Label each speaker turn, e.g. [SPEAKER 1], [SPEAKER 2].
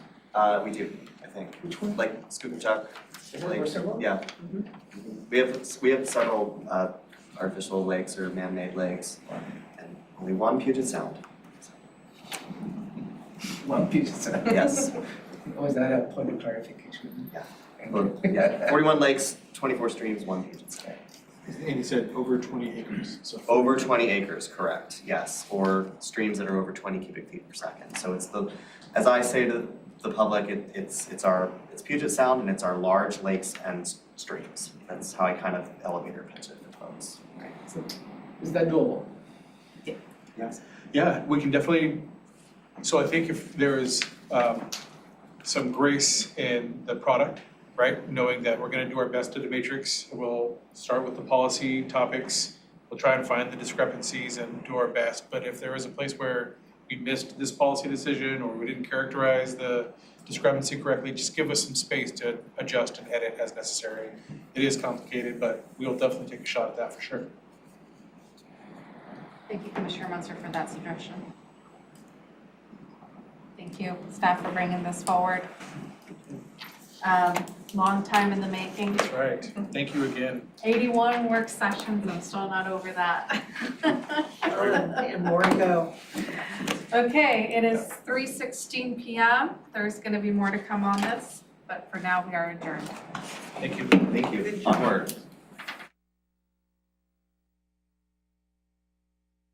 [SPEAKER 1] Uh, we do, I think,
[SPEAKER 2] Which one?
[SPEAKER 1] like Scoop and Chuck,
[SPEAKER 2] Is
[SPEAKER 1] like, yeah. We have, we have several uh artificial lakes or man-made lakes, and only one Puget Sound,
[SPEAKER 2] One piece, of-
[SPEAKER 1] yes.
[SPEAKER 2] was that a point of clarification?
[SPEAKER 1] Yeah.
[SPEAKER 2] Thank
[SPEAKER 1] Well,
[SPEAKER 2] you.
[SPEAKER 1] yeah, forty-one lakes, twenty-four streams, one Puget Sound.
[SPEAKER 3] And he said over twenty acres, so.
[SPEAKER 1] Over twenty acres, correct, yes, or streams that are over twenty cubic feet per second, so it's the, as I say to the public, it it's it's our, it's Puget Sound and it's our large lakes and s- streams. That's how I kind of elevator pitch it for folks.
[SPEAKER 2] Is that doable?
[SPEAKER 1] Yes.
[SPEAKER 3] Yeah, we can definitely, so I think if there is um some grace in the product, right? Knowing that we're gonna do our best to the matrix, we'll start with the policy topics, we'll try and find the discrepancies and do our best. But if there is a place where we missed this policy decision or we didn't characterize the discrepancy correctly, just give us some space to adjust and edit as necessary. It is complicated, but we'll definitely take a shot at that for sure.
[SPEAKER 4] Thank you, Commissioner Munster, for that suggestion. Thank you, staff, for bringing this forward. Um, Long time in the making.
[SPEAKER 3] That's right. Thank you again.
[SPEAKER 4] 81 work sessions, I'm still not over that.
[SPEAKER 2] And more to go.
[SPEAKER 4] Okay, it is 3:16 PM. There's going to be more to come on this, but for now, we are adjourned.
[SPEAKER 3] Thank you.
[SPEAKER 1] Thank you, onward.